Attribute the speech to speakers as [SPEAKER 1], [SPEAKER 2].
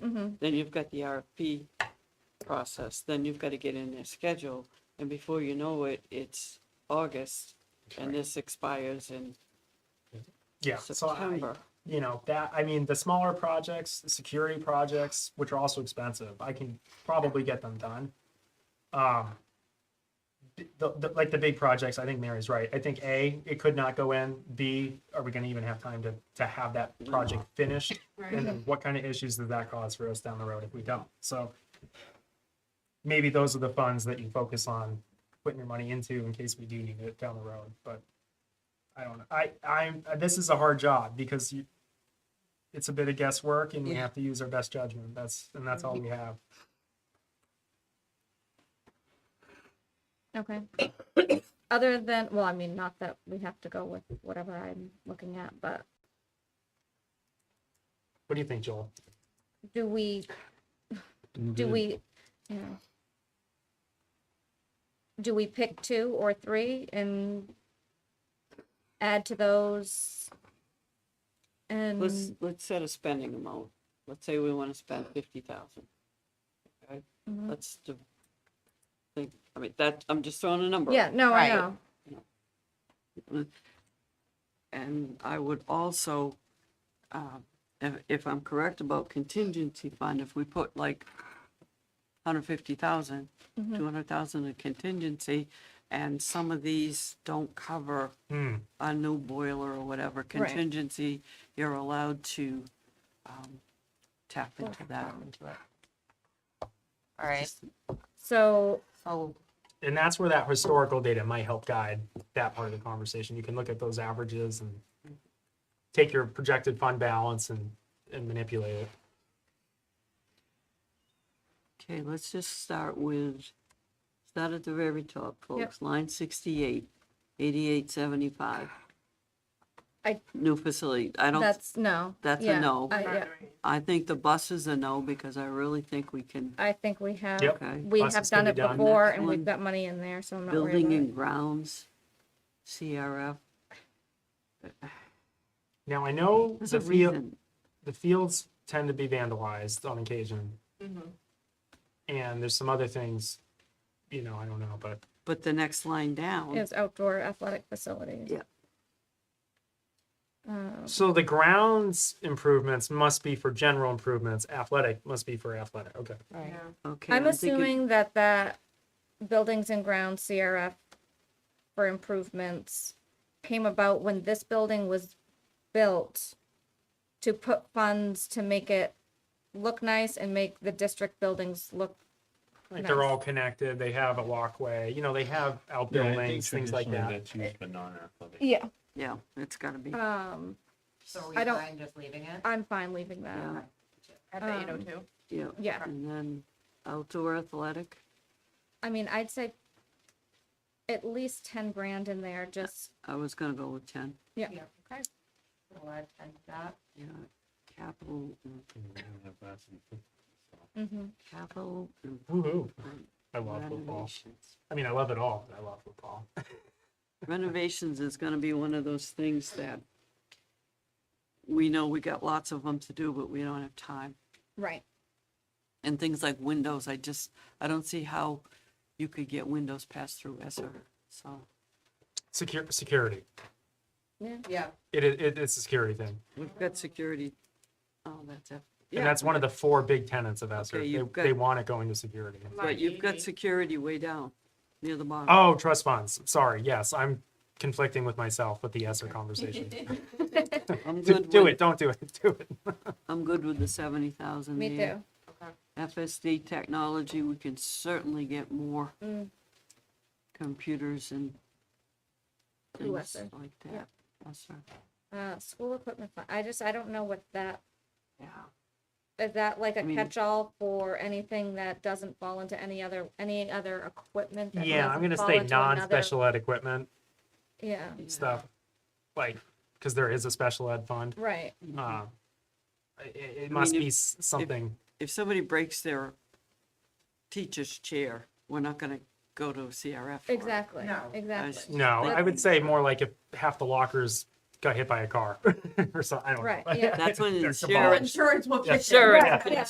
[SPEAKER 1] Mhm.
[SPEAKER 2] Then you've got the RFP process, then you've got to get in their schedule, and before you know it, it's August, and this expires in
[SPEAKER 3] Yeah, so I,
[SPEAKER 2] September.
[SPEAKER 3] you know, that, I mean, the smaller projects, the security projects, which are also expensive, I can probably get them done. Um, b- the, the, like the big projects, I think Mary's right. I think A, it could not go in. B, are we gonna even have time to, to have that project finished? And then what kind of issues does that cause for us down the road if we don't? So maybe those are the funds that you focus on putting your money into in case we do need it down the road, but I don't know. I, I'm, this is a hard job because you, it's a bit of guesswork and we
[SPEAKER 2] Yeah.
[SPEAKER 3] have to use our best judgment. That's, and that's all we have.
[SPEAKER 1] Okay. Other than, well, I mean, not that we have to go with whatever I'm looking at, but
[SPEAKER 3] What do you think, Joel?
[SPEAKER 1] do we, do
[SPEAKER 2] Mm-hmm.
[SPEAKER 1] we, yeah. Do we pick two or three and add to those?
[SPEAKER 2] Let's,
[SPEAKER 1] And,
[SPEAKER 2] let's set a spending amount. Let's say we want to spend fifty thousand. Okay,
[SPEAKER 1] Mhm.
[SPEAKER 2] let's do, think, I mean, that, I'm just throwing a number.
[SPEAKER 1] yeah,
[SPEAKER 2] out.
[SPEAKER 1] no, I
[SPEAKER 4] Right.
[SPEAKER 1] know.
[SPEAKER 2] And I would also, uh, if, if I'm correct about contingency fund, if we put like 150,000, 200,000 in contingency, and some of these don't cover
[SPEAKER 3] Hmm.
[SPEAKER 2] a new boiler or whatever contingency, you're allowed to um, tap into that.
[SPEAKER 4] All right,
[SPEAKER 1] So,
[SPEAKER 4] so
[SPEAKER 3] And that's where that historical data might help guide that part of the conversation. You can look at those averages and take your projected fund balance and, and manipulate it.
[SPEAKER 2] Okay, let's just start with, start at the very top, folks, line 68, 8875.
[SPEAKER 1] I-
[SPEAKER 2] New facility. I don't
[SPEAKER 1] that's, no.
[SPEAKER 2] That's a
[SPEAKER 1] yeah,
[SPEAKER 2] no.
[SPEAKER 1] I, yeah,
[SPEAKER 2] I think the buses are no, because I really think we can,
[SPEAKER 1] I think we have,
[SPEAKER 3] Yep.
[SPEAKER 2] okay.
[SPEAKER 1] we
[SPEAKER 3] Plus
[SPEAKER 1] have
[SPEAKER 3] it's gonna
[SPEAKER 1] done it
[SPEAKER 3] be done.
[SPEAKER 1] before
[SPEAKER 2] Next
[SPEAKER 1] and we've
[SPEAKER 2] one.
[SPEAKER 1] got money in there, so I'm not worried
[SPEAKER 2] Building
[SPEAKER 1] about it.
[SPEAKER 2] and grounds, CRF,
[SPEAKER 3] Now, I know
[SPEAKER 2] there's
[SPEAKER 3] the
[SPEAKER 2] a
[SPEAKER 3] field,
[SPEAKER 2] reason.
[SPEAKER 3] the fields tend to be vandalized on occasion.
[SPEAKER 2] Mm-hmm.
[SPEAKER 3] And there's some other things, you know, I don't know, but
[SPEAKER 2] But the next line down,
[SPEAKER 1] Is outdoor athletic facilities.
[SPEAKER 2] Yeah.
[SPEAKER 1] Um,
[SPEAKER 3] so the grounds improvements must be for general improvements. Athletic must be for athletic. Okay.
[SPEAKER 4] right.
[SPEAKER 2] okay.
[SPEAKER 1] I'm
[SPEAKER 2] thinking-
[SPEAKER 1] assuming that that buildings and grounds CRF for improvements came about when this building was built to put funds to make it look nice and make the district buildings look,
[SPEAKER 3] Like they're
[SPEAKER 1] Nice.
[SPEAKER 3] all connected. They have a walkway, you know, they have outbuildings, things like that.
[SPEAKER 5] That's used for non-athletic.
[SPEAKER 1] yeah,
[SPEAKER 2] Yeah, it's gotta be,
[SPEAKER 1] um,
[SPEAKER 4] So are
[SPEAKER 1] I
[SPEAKER 4] we
[SPEAKER 1] don't-
[SPEAKER 4] fine just leaving it?
[SPEAKER 1] I'm fine leaving that,
[SPEAKER 4] At
[SPEAKER 1] um,
[SPEAKER 4] the eight oh two?
[SPEAKER 2] yeah.
[SPEAKER 1] yeah,
[SPEAKER 2] And then outdoor athletic,
[SPEAKER 1] I mean, I'd say at least ten grand in there, just,
[SPEAKER 2] I was gonna go with ten,
[SPEAKER 1] yeah.
[SPEAKER 4] Yeah, okay. We'll add ten to that.
[SPEAKER 2] yeah. Capital, mm,
[SPEAKER 1] mhm.
[SPEAKER 2] capital mm,
[SPEAKER 3] Woohoo.
[SPEAKER 2] mm,
[SPEAKER 3] I love football.
[SPEAKER 2] renovations.
[SPEAKER 3] I mean, I love it all. but I love football.
[SPEAKER 2] Renovations is gonna be one of those things that we know we got lots of them to do, but we don't have time.
[SPEAKER 1] right,
[SPEAKER 2] and things like windows, I just, I don't see how you could get windows passed through ESER, so.
[SPEAKER 3] Secure security.
[SPEAKER 1] yeah.
[SPEAKER 4] Yeah.
[SPEAKER 3] It, i- it it's a security thing,
[SPEAKER 2] We've got security, oh, that's it.
[SPEAKER 3] and that's one of the four big tenets of ESER.
[SPEAKER 2] Okay,
[SPEAKER 3] they,
[SPEAKER 2] you've got-
[SPEAKER 3] they want it going to security.
[SPEAKER 2] But you've got security way down, near the bottom.
[SPEAKER 3] Oh, trust funds. Sorry. Yes, I'm conflicting with myself with the ESER conversation.
[SPEAKER 2] I'm
[SPEAKER 3] do,
[SPEAKER 2] good
[SPEAKER 3] Oh, do
[SPEAKER 2] with-
[SPEAKER 3] it. Don't do it. Do it.
[SPEAKER 2] I'm good with the seventy thousand
[SPEAKER 1] Me
[SPEAKER 2] there.
[SPEAKER 1] too,
[SPEAKER 2] FSD technology, we can certainly get more
[SPEAKER 1] Mm.
[SPEAKER 2] computers and
[SPEAKER 1] Through
[SPEAKER 2] things
[SPEAKER 1] ESER,
[SPEAKER 2] like
[SPEAKER 1] yeah.
[SPEAKER 2] that. ESER,
[SPEAKER 1] uh, school equipment, fund. I just, I don't know what that
[SPEAKER 2] yeah.
[SPEAKER 1] Is that like a
[SPEAKER 2] I mean-
[SPEAKER 1] catch-all for anything that doesn't fall into any other, any other equipment? that
[SPEAKER 3] Yeah, I'm
[SPEAKER 1] doesn't
[SPEAKER 3] gonna
[SPEAKER 1] fall
[SPEAKER 3] say
[SPEAKER 1] into another-
[SPEAKER 3] non-special ed equipment
[SPEAKER 1] Yeah,
[SPEAKER 2] Yeah.
[SPEAKER 3] stuff, like because there is a special ed fund.
[SPEAKER 1] right,
[SPEAKER 3] Uh, it, it must
[SPEAKER 2] mean,
[SPEAKER 3] be s- something.
[SPEAKER 2] If somebody breaks their teacher's chair, we're not gonna go to CRF for it.
[SPEAKER 1] exactly,
[SPEAKER 4] No.
[SPEAKER 1] exactly.
[SPEAKER 3] no, I would
[SPEAKER 2] that's-
[SPEAKER 3] say more like if half the lockers got hit by a car or something. I don't
[SPEAKER 1] Right,
[SPEAKER 3] know.
[SPEAKER 1] yeah.
[SPEAKER 2] That's when
[SPEAKER 3] They're
[SPEAKER 2] insurance
[SPEAKER 4] Insurance will
[SPEAKER 3] Yeah.
[SPEAKER 4] kick in.
[SPEAKER 2] Sure,
[SPEAKER 1] yeah.